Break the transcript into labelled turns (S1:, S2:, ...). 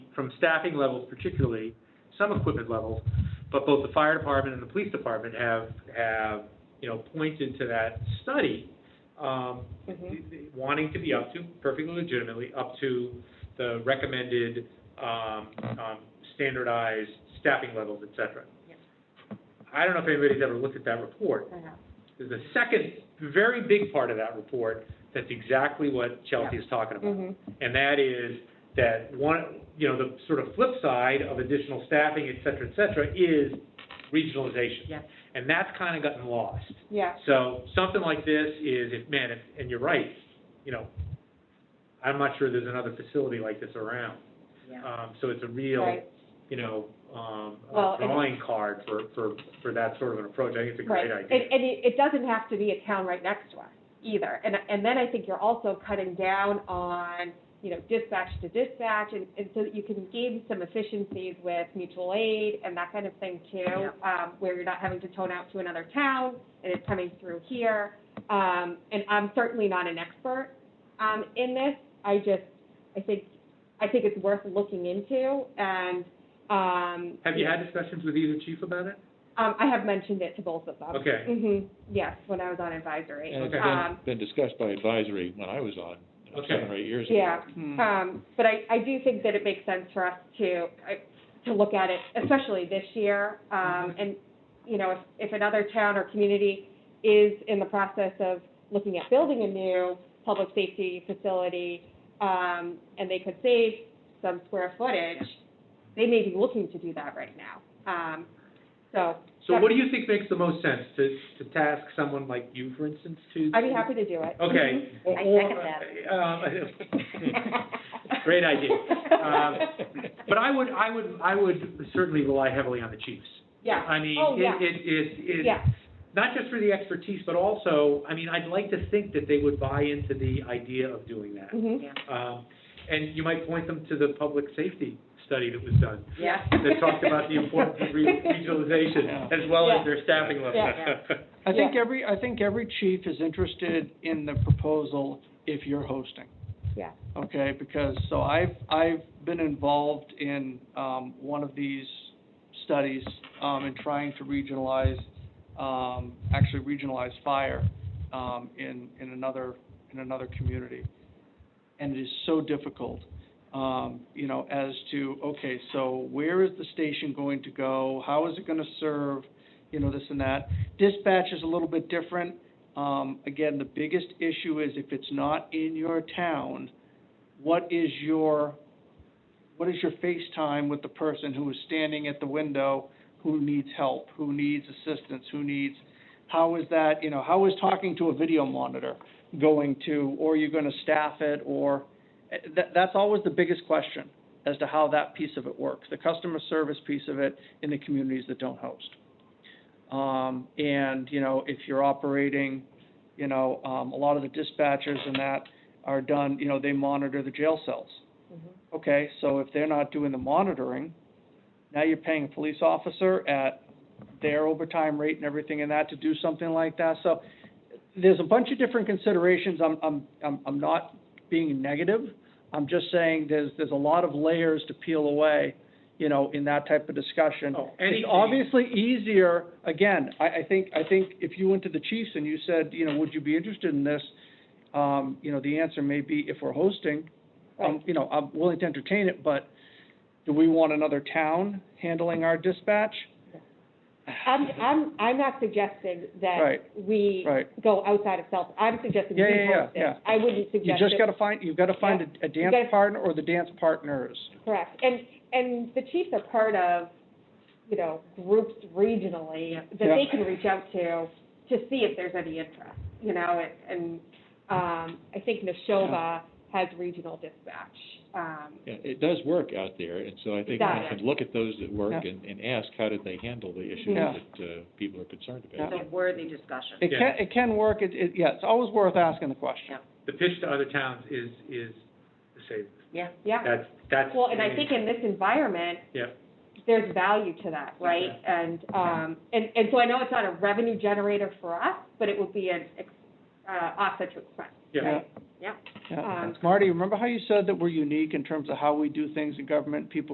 S1: from staffing levels particularly, some equipment levels, but both the fire department and the police department have, have, you know, pointed to that study, um, wanting to be up to, perfectly legitimately, up to the recommended, um, um, standardized staffing levels, et cetera.
S2: Yep.
S1: I don't know if anybody's ever looked at that report.
S2: I know.
S1: There's a second, very big part of that report that's exactly what Chelsea is talking
S2: Mm-hmm.
S1: about. And that is that one, you know, the sort of flip side of additional staffing, et cetera, et cetera, is regionalization.
S2: Yeah.
S1: And that's kind of gotten lost.
S2: Yeah,
S1: So something like this is, if, man, if- and you're right, you know, I'm not sure there's another facility like this around.
S2: yeah.
S1: Um, so it's a real,
S2: Right.
S1: you know, um, a
S2: Well, and-
S1: drawing card for, for, for that sort of an approach. I think it's a great
S2: Right.
S1: idea.
S2: And, and it, it doesn't have to be a town right next to us either. And, and then I think you're also cutting down on, you know, dispatch to dispatch and, and so that you can gain some efficiencies with mutual aid and that kind of thing too. Um, where you're not having to tone out to another town and it's coming through here. Um, and I'm certainly not an expert, um, in this. I just, I think, I think it's worth looking into and, um.
S1: Have you had discussions with either chief about it?
S2: Um, I have mentioned it to both of them.
S1: Okay.
S2: hmm yes, when I was on advisory.
S3: And it's
S1: Okay.
S3: been,
S2: Um,
S3: been discussed by advisory when I was on, you know,
S1: Okay.
S3: seven or eight years ago.
S2: yeah,
S4: Mm.
S2: um, but I, I do think that it makes sense for us to, I- to look at it, especially this year.
S3: Mm-hmm.
S2: Um, and, you know, if, if another town or community is in the process of looking at building a new public safety facility, um, and they could save some square footage, they may be looking to do that right now. Um, so
S1: So what do you think makes the most sense, to, to task someone like you, for instance, to?
S2: I'd be happy to do it.
S1: Okay.
S2: Mhm.
S4: I
S1: Or-
S4: second
S1: um, Great idea. Um, But I would, I would, I would certainly rely heavily on the chiefs.
S2: Yeah.
S1: I mean,
S2: Oh,
S1: it,
S2: yeah.
S1: it, it, it,
S2: Yeah,
S1: not just for the expertise, but also, I mean, I'd like to think that they would buy into the idea of doing that.
S2: mhm,
S1: Um, and you might point them to the public safety study that was done,
S2: yeah.
S1: that talked about the importance of re- regionalization, as well
S2: Yeah.
S1: as their staffing level.
S2: Yeah.
S5: I think
S2: Yeah.
S5: every, I think every chief is interested in the proposal if you're hosting.
S2: Yeah.
S5: Okay, because, so I've, I've been involved in, um, one of these studies, um, in trying to regionalize, um, actually regionalize fire, um, in, in another, in another community. And it is so difficult, um, you know, as to, okay, so where is the station going to go? How is it gonna serve, you know, this and that? Dispatch is a little bit different. Um, again, the biggest issue is if it's not in your town, what is your, what is your face time with the person who is standing at the window, who needs help, who needs assistance, who needs, how is that, you know, how is talking to a video monitor going to, or you're gonna staff it, or, eh, that, that's always the biggest question as to how that piece of it works, the customer service piece of it in the communities that don't host. Um, and, you know, if you're operating, you know, um, a lot of the dispatchers and that are done, you know, they monitor the jail cells.
S2: Mm-hmm.
S5: Okay, so if they're not doing the monitoring, now you're paying a police officer at their overtime rate and everything and that to do something like that. So there's a bunch of different considerations. I'm, I'm, I'm, I'm not being negative. I'm just saying there's, there's a lot of layers to peel away, you know, in that type of discussion.
S1: Oh, anything-
S5: It's obviously easier, again, I, I think, I think if you went to the chiefs and you said, you know, would you be interested in this? Um, you know, the answer may be if we're hosting, um, you know, I'm willing to entertain it, but do we want another town handling our dispatch?
S2: I'm, I'm, I'm not suggesting that
S5: Right.
S2: we
S5: Right.
S2: go outside of South, I'm suggesting we
S5: Yeah, yeah, yeah,
S2: host it.
S5: yeah.
S2: I wouldn't
S5: You
S2: suggest
S5: just
S2: it,
S5: gotta find, you've gotta find a, a dance
S2: gotta-
S5: partner or the dance partners.
S2: correct. And, and the chiefs are part of, you know, groups regionally that
S5: Yeah.
S2: they can reach out to, to see if there's any interest, you know, and, um, I think Neshoba has regional dispatch, um,
S3: Yeah, it does work out there, and so I think
S2: does.
S3: we can look at those that work
S5: Yeah.
S3: and, and ask, how did they handle the issues
S5: Yeah.
S3: that, uh, people are concerned about?
S4: It's a worthy discussion.
S5: It
S1: Yeah.
S5: can, it can work, it, it, yeah, it's always worth asking the question.
S1: The pitch to other towns is, is the same.
S4: Yeah.
S2: yeah.
S1: That's, that's.
S2: Well, and I think in this environment.
S1: Yeah.
S2: There's value to that, right? And, um, and, and so I know it's not a revenue generator for us, but it would be an, ex- uh, offset to expense.
S1: Yeah.
S2: right? yeah.
S5: Yeah.
S2: Um,
S5: Marty, remember how you said that we're unique in terms of how we do things in government? People